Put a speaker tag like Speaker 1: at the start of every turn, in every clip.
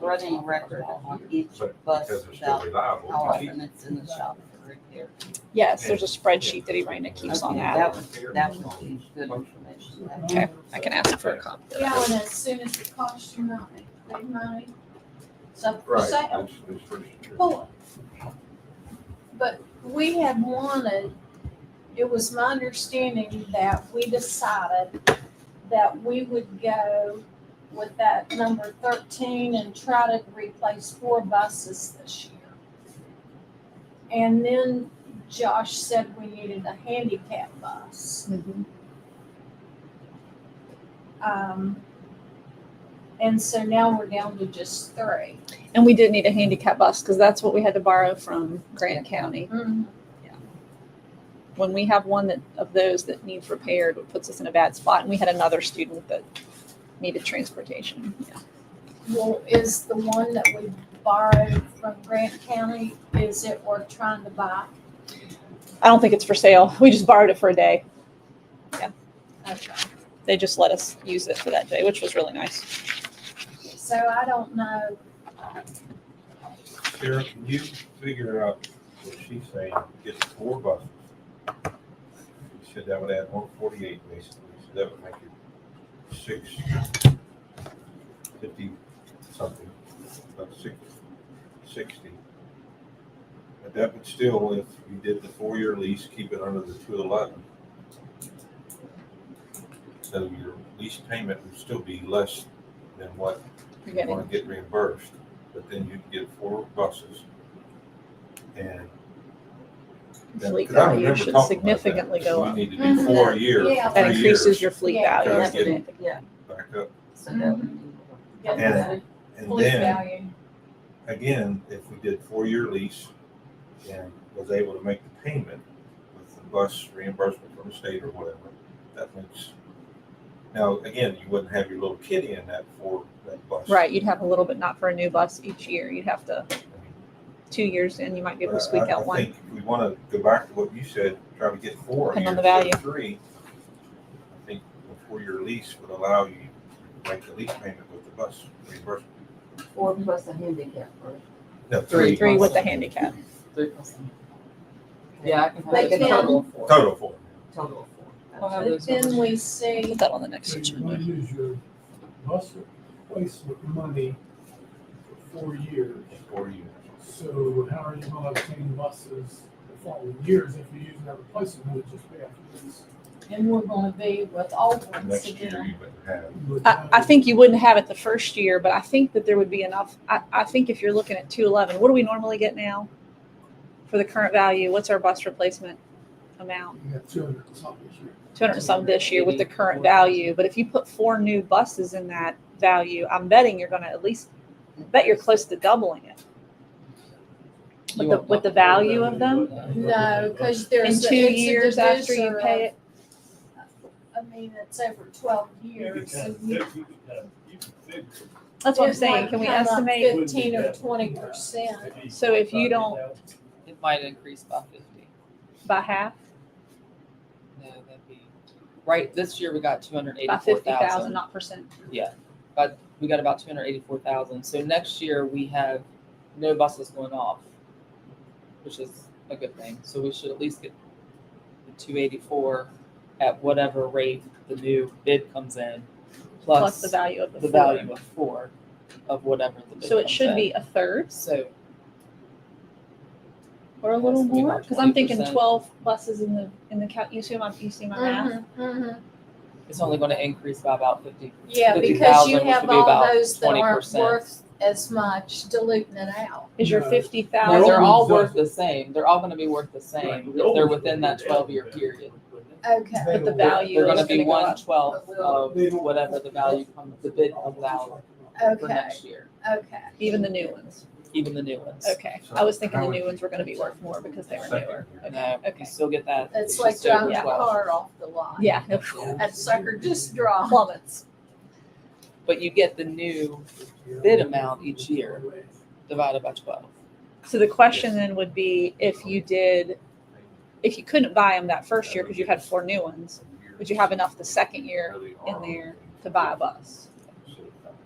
Speaker 1: running a record on each bus
Speaker 2: Because they're still
Speaker 1: about
Speaker 2: reliable.
Speaker 1: how often it's in the shop for repair.
Speaker 3: Yes, there's a spreadsheet that Irina keeps on
Speaker 1: Okay,
Speaker 3: that.
Speaker 1: That was, that was good information.
Speaker 3: Okay, I can ask for a copy. of
Speaker 4: Yeah,
Speaker 3: that.
Speaker 4: and as soon as it costs you money, big money, so for
Speaker 2: Right.
Speaker 4: sale,
Speaker 2: It's- it's pretty secure.
Speaker 4: pull it. But we had wanted, it was my understanding that we decided that we would go with that number thirteen and try to replace four buses this year. And then Josh said we needed a handicap bus. Um, and so now we're down to just 3
Speaker 3: And we did need a handicap bus because that's what we had to borrow from Grant County. When we have one that, of those that needs repaired, it puts us in a bad spot. And we had another student that needed transportation. Yeah.
Speaker 4: Well, is the one that we borrowed from Grant County, is it worth trying to buy?
Speaker 3: I don't think it's for sale. We just borrowed it for a day.
Speaker 4: Okay.
Speaker 3: They just let us use it for that day, which was really nice.
Speaker 4: So I don't know,
Speaker 2: Sarah, can you figure out what she's saying, get four buses? You said that would add one forty-eight basically, so that would make it six fifty something, about six, sixty. But that would still, if you did the four-year lease, keep it under the two eleven. So your lease payment would still be less than what
Speaker 3: You're
Speaker 2: you
Speaker 3: getting
Speaker 2: want to get reimbursed, but then you get four buses. And. then-
Speaker 3: fleet
Speaker 2: 'cause I
Speaker 3: value
Speaker 2: remember
Speaker 3: should
Speaker 2: talking about that,
Speaker 3: significantly
Speaker 2: so
Speaker 3: go
Speaker 2: We
Speaker 3: up.
Speaker 2: need to do
Speaker 4: Mhm.
Speaker 2: four years,
Speaker 4: Yeah.
Speaker 3: That
Speaker 2: three
Speaker 3: increases
Speaker 2: years
Speaker 3: your fleet
Speaker 4: Yeah.
Speaker 3: value.
Speaker 2: Gotta get it.
Speaker 3: Yeah.
Speaker 2: back up.
Speaker 1: So that would
Speaker 4: get
Speaker 2: And-
Speaker 4: the
Speaker 2: And
Speaker 4: police
Speaker 2: then,
Speaker 4: value.
Speaker 2: again, if we did four-year lease and was able to make the payment with the bus reimbursement from the state or whatever, that makes. Now, again, you wouldn't have your little kitty in that for that bus.
Speaker 3: Right. You'd have a little bit, not for a new bus each year. You'd have to,
Speaker 2: I mean,
Speaker 3: two years in, you might be able to
Speaker 2: But I-
Speaker 3: squeak
Speaker 2: I-
Speaker 3: out
Speaker 2: I
Speaker 3: one.
Speaker 2: think if we want to go back to what you said, try to get four.
Speaker 3: Depend on
Speaker 2: here
Speaker 3: the value.
Speaker 2: instead of Three, I think a four-year lease would allow you to make the lease payment with the bus reimbursement.
Speaker 1: be four plus a handicap or
Speaker 2: No,
Speaker 5: Three.
Speaker 2: three,
Speaker 3: Three with the handicap.
Speaker 1: three plus. a-
Speaker 5: Yeah, I can put
Speaker 1: Like
Speaker 4: But
Speaker 1: a
Speaker 5: it-
Speaker 4: then-
Speaker 1: total of four,
Speaker 2: total four.
Speaker 1: total of
Speaker 5: I'll
Speaker 1: four.
Speaker 5: have
Speaker 4: But
Speaker 5: those
Speaker 4: then
Speaker 5: numbers.
Speaker 4: we see,
Speaker 3: Put that on the next
Speaker 5: So
Speaker 3: agenda.
Speaker 5: you wanna use your bus replacement money for four years.
Speaker 2: Four years.
Speaker 5: So how are you gonna obtain buses the following years if you're using that replacement money just pay after this?
Speaker 4: and we're gonna be with old ones
Speaker 2: Next year
Speaker 4: again.
Speaker 2: you would have.
Speaker 5: You would
Speaker 3: I,
Speaker 5: have-
Speaker 3: I think you wouldn't have it the first year, but I think that there would be enough. I, I think if you're looking at two eleven, what do we normally get now? For the current value, what's our bus replacement amount?
Speaker 5: You got two hundred and something here.
Speaker 3: Two hundred and some this year with the current value, but if you put four new buses in that value, I'm betting you're gonna at least, bet you're close to doubling it. With the, with the value of them,
Speaker 4: No, cause
Speaker 3: in
Speaker 4: there's. a-
Speaker 3: two
Speaker 4: it's a
Speaker 3: years after you
Speaker 4: divisor
Speaker 3: pay it,
Speaker 4: of- I mean, it's over twelve
Speaker 6: You could kind
Speaker 4: years, so
Speaker 6: of,
Speaker 4: you
Speaker 6: you could kind of, you could fix it.
Speaker 3: that's what I'm
Speaker 4: It
Speaker 3: saying,
Speaker 4: might
Speaker 3: can we
Speaker 4: come up
Speaker 3: estimate?
Speaker 4: Fifteen or twenty percent.
Speaker 6: Maybe
Speaker 3: So if you don't-
Speaker 6: 5,000.
Speaker 7: It might increase by fifty.
Speaker 3: By half,
Speaker 7: No, that'd be, right, this year we got two hundred
Speaker 3: by
Speaker 7: eighty-four
Speaker 3: fifty thousand,
Speaker 7: thousand.
Speaker 3: not percent.
Speaker 7: But we got about two hundred eighty-four thousand. So next year we have no buses going off, which is a good thing. So we should at least get the two eighty-four at whatever rate the new bid comes in,
Speaker 3: Plus
Speaker 7: plus
Speaker 3: the value of the
Speaker 7: the
Speaker 3: four.
Speaker 7: value of four of whatever the bid
Speaker 3: So it
Speaker 7: comes
Speaker 3: should
Speaker 7: in.
Speaker 3: be a third.
Speaker 7: So
Speaker 3: Or a little
Speaker 7: Yes, we
Speaker 3: more,
Speaker 7: want
Speaker 3: because I'm thinking
Speaker 7: 20%.
Speaker 3: twelve buses in the, in the count, you see my, you see my math?
Speaker 4: Mm-hmm.
Speaker 3: mm-hmm.
Speaker 7: it's only gonna increase by about fifty
Speaker 4: Yeah,
Speaker 7: 50,000,
Speaker 4: because you
Speaker 7: which would
Speaker 4: have
Speaker 7: be
Speaker 4: all
Speaker 7: about
Speaker 4: those that aren't
Speaker 7: 20%.
Speaker 4: worth as much diluting it out.
Speaker 3: Is your
Speaker 5: No.
Speaker 3: fifty
Speaker 7: No, they're
Speaker 3: thousand,
Speaker 7: all
Speaker 5: They're all
Speaker 7: worth the same. They're all gonna be worth the
Speaker 6: Right.
Speaker 7: same if they're within that twelve year period.
Speaker 4: Okay.
Speaker 3: but the
Speaker 5: They're-
Speaker 3: value
Speaker 7: They're
Speaker 3: is
Speaker 7: gonna be
Speaker 3: gonna go
Speaker 7: one
Speaker 3: up?
Speaker 7: twelfth of
Speaker 5: They don't-
Speaker 7: whatever the value comes, the bid comes out for
Speaker 4: Okay,
Speaker 7: next year,
Speaker 4: okay.
Speaker 3: Even the new ones,
Speaker 7: even the new ones.
Speaker 3: okay,
Speaker 2: So
Speaker 3: I was thinking the
Speaker 2: how
Speaker 3: new
Speaker 2: would-
Speaker 3: ones were gonna be worth more because they were
Speaker 2: Second
Speaker 3: newer.
Speaker 2: year.
Speaker 7: No,
Speaker 3: Okay.
Speaker 7: you still get that.
Speaker 4: It's like
Speaker 7: just over
Speaker 4: driving a
Speaker 7: 12.
Speaker 4: car off the lot.
Speaker 3: Yeah,
Speaker 4: That sucker just dropped.
Speaker 3: plummets,
Speaker 7: But you get the new bid amount each year divided by twelve.
Speaker 3: so the question then would be, if you did, if you couldn't buy them that first year, because you had four new ones, would you have enough the second year
Speaker 2: Really
Speaker 3: in
Speaker 2: are.
Speaker 3: there to buy a bus,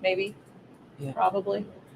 Speaker 3: maybe?
Speaker 7: Yeah.
Speaker 3: Probably,